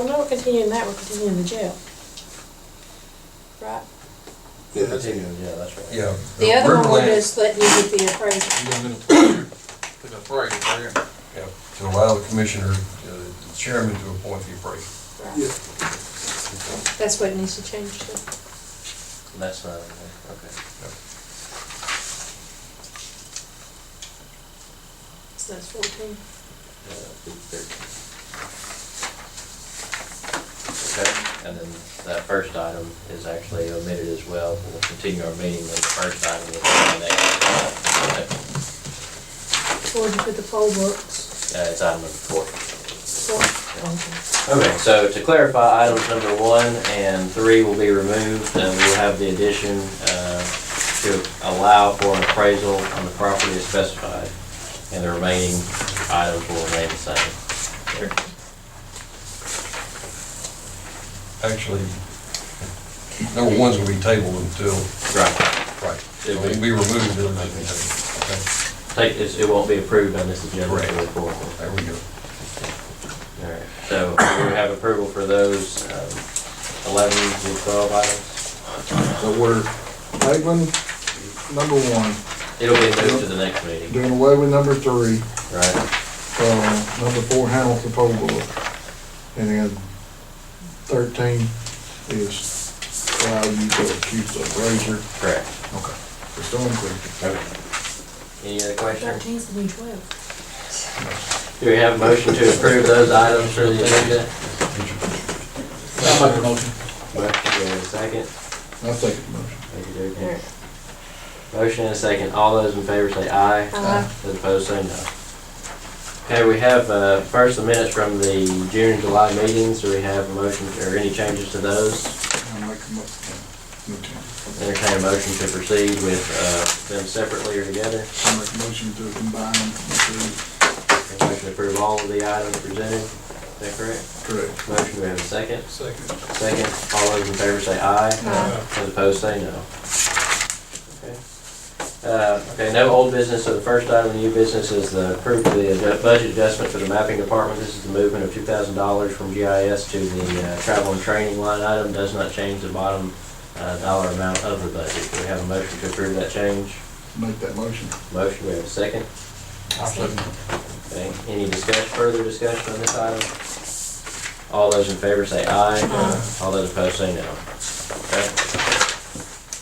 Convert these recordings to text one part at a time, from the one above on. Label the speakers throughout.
Speaker 1: We're not continuing that, we're continuing the jail. Right?
Speaker 2: Yeah, that's it.
Speaker 3: Yeah, that's right.
Speaker 4: Yeah. uh,
Speaker 1: The
Speaker 4: we're
Speaker 1: other one we're
Speaker 4: glad-
Speaker 1: just letting you get the appraisal.
Speaker 5: You're gonna put a parade there.
Speaker 4: yeah, To allow the commissioner, uh, the chairman to appoint the appraiser.
Speaker 1: Right.
Speaker 2: Yeah.
Speaker 1: That's what needs to change to.
Speaker 3: That's not, in there. okay.
Speaker 1: So that's fourteen.
Speaker 3: Yeah, big thirteen. Okay, and then that first item is actually omitted as well. We'll continue our meeting with the first item with the next.
Speaker 1: Where'd you put the poll books?
Speaker 3: Uh, it's item number four.
Speaker 1: Four. Okay.
Speaker 3: Okay, so to clarify, items number one and three will be removed, and we'll have the addition uh, to allow for an appraisal on the property as specified, and the remaining items will remain the same.
Speaker 4: Actually, number one's gonna be tabled until,
Speaker 3: Right.
Speaker 4: right, it'll be removed and then be tabled.
Speaker 3: Take, it's- it won't be approved on this agenda.
Speaker 4: Correct.
Speaker 3: going forward.
Speaker 4: Okay, there we go.
Speaker 3: All right, so we have approval for those um, 11 to 12 items.
Speaker 6: So we're tabling number one,
Speaker 3: It'll be moved to the next meeting,
Speaker 6: doing away with number three,
Speaker 3: right?
Speaker 6: uh, number four handles the poll book. And then thirteen is allow you to accuse the razor.
Speaker 3: Correct.
Speaker 6: Okay. It's done quick.
Speaker 3: Any other questions?
Speaker 1: Thirteen's the new twelve.
Speaker 3: Do we have a motion to approve those items for the agenda?
Speaker 5: I'll make a motion.
Speaker 3: Motion, and a second.
Speaker 6: I'll take the motion.
Speaker 3: Thank you, Derek. Motion and a second. All those in favor say aye.
Speaker 1: Aye.
Speaker 3: Those opposed say no. Okay, we have uh, first the minutes from the June and July meetings. Do we have a motion or any changes to those?
Speaker 6: I'll make a motion.
Speaker 3: Entertain a motion to proceed with uh, them separately or together.
Speaker 6: I'll make a motion to combine them.
Speaker 3: Motion to approve all of the items presented. Is that correct?
Speaker 6: Correct.
Speaker 3: Motion, do we have a second?
Speaker 5: Second.
Speaker 3: Second. All those in favor say aye.
Speaker 1: Aye.
Speaker 3: Those opposed say no. Okay. Uh, Okay, no old business, so the first item of new business is the approval of the adju- budget adjustment for the mapping department. This is the movement of two thousand dollars from GIS to the uh, travel and training line item, does not change the bottom uh, dollar amount of the budget. Do we have a motion to approve that change?
Speaker 6: Make that motion.
Speaker 3: Motion, we have a second. Okay, any discussion, further discussion on this item? All those in favor say aye.
Speaker 1: Aye.
Speaker 3: All those opposed say no. Okay.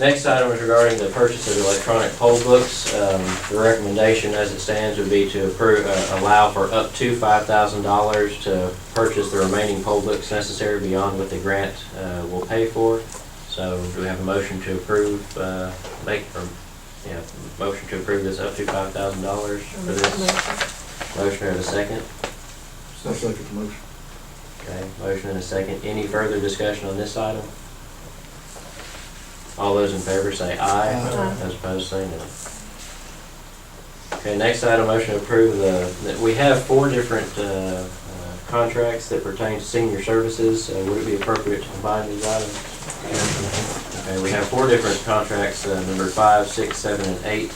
Speaker 3: Next item is regarding the purchase of electronic poll books. Um, The recommendation as it stands would be to approve, uh, allow for up to five thousand dollars to purchase the remaining poll books necessary beyond what the grant uh, will pay for. So do we have a motion to approve, uh, make, or, yeah, motion to approve this up to five thousand dollars
Speaker 1: I'll
Speaker 3: for
Speaker 1: make that
Speaker 3: this?
Speaker 1: motion.
Speaker 3: Motion and a second.
Speaker 6: I'll take the motion.
Speaker 3: Okay, motion and a second. Any further discussion on this item? All those in favor say aye.
Speaker 1: Aye.
Speaker 3: Those opposed say no. Okay, next item, motion to approve the, that we have four different uh, uh, contracts that pertain to senior services. Uh, Would it be appropriate to combine these items? Okay, we have four different contracts, uh, number five, six, seven, and eight,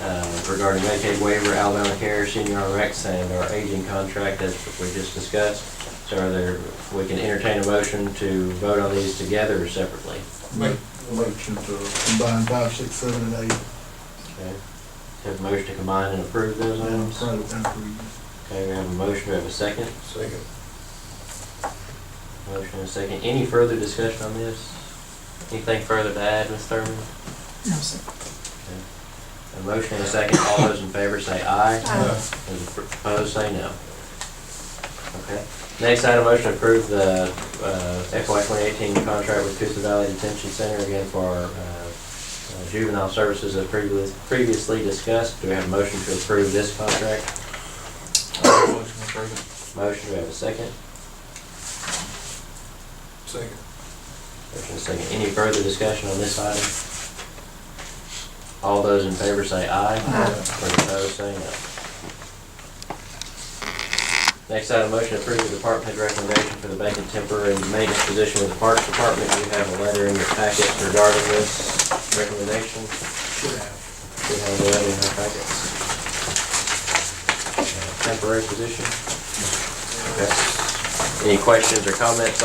Speaker 3: uh, regarding Medicaid waiver, Alabama Care, Senior RX, and our aging contract as we just discussed. So are there, we can entertain a motion to vote on these together or separately?
Speaker 6: Make a motion to combine five, six, seven, and eight.
Speaker 3: Okay. Have a motion to combine and approve those
Speaker 6: I'm
Speaker 3: items?
Speaker 6: proud of them for you.
Speaker 3: Okay, we have a motion, we have a second.
Speaker 4: Second.
Speaker 3: Motion and a second. Any further discussion on this? Anything further to add, Ms. Thurman?
Speaker 1: No, sir.
Speaker 3: A motion and a second. All those in favor say aye.
Speaker 1: Aye.
Speaker 3: Those opposed, say no. Okay. Next item, motion to approve the uh, FY 2018 contract with Coosa Valley Detention Center again for our uh, uh, juvenile services as previous- previously discussed. Do we have a motion to approve this contract?
Speaker 5: I'll make a motion to approve
Speaker 3: Motion, do we have a second?
Speaker 5: it. Second.
Speaker 3: Motion and a second. Any further discussion on this item? All those in favor say aye.
Speaker 1: Aye.
Speaker 3: Those opposed, say no. Next item, motion to approve the department head recommendation for the vacant temporary maintenance position with the Parks Department. You have a letter in your packet regarding this recommendation.
Speaker 5: Should have.
Speaker 3: We have a letter in our packets. Uh, Temporary position. Okay. Any questions or comments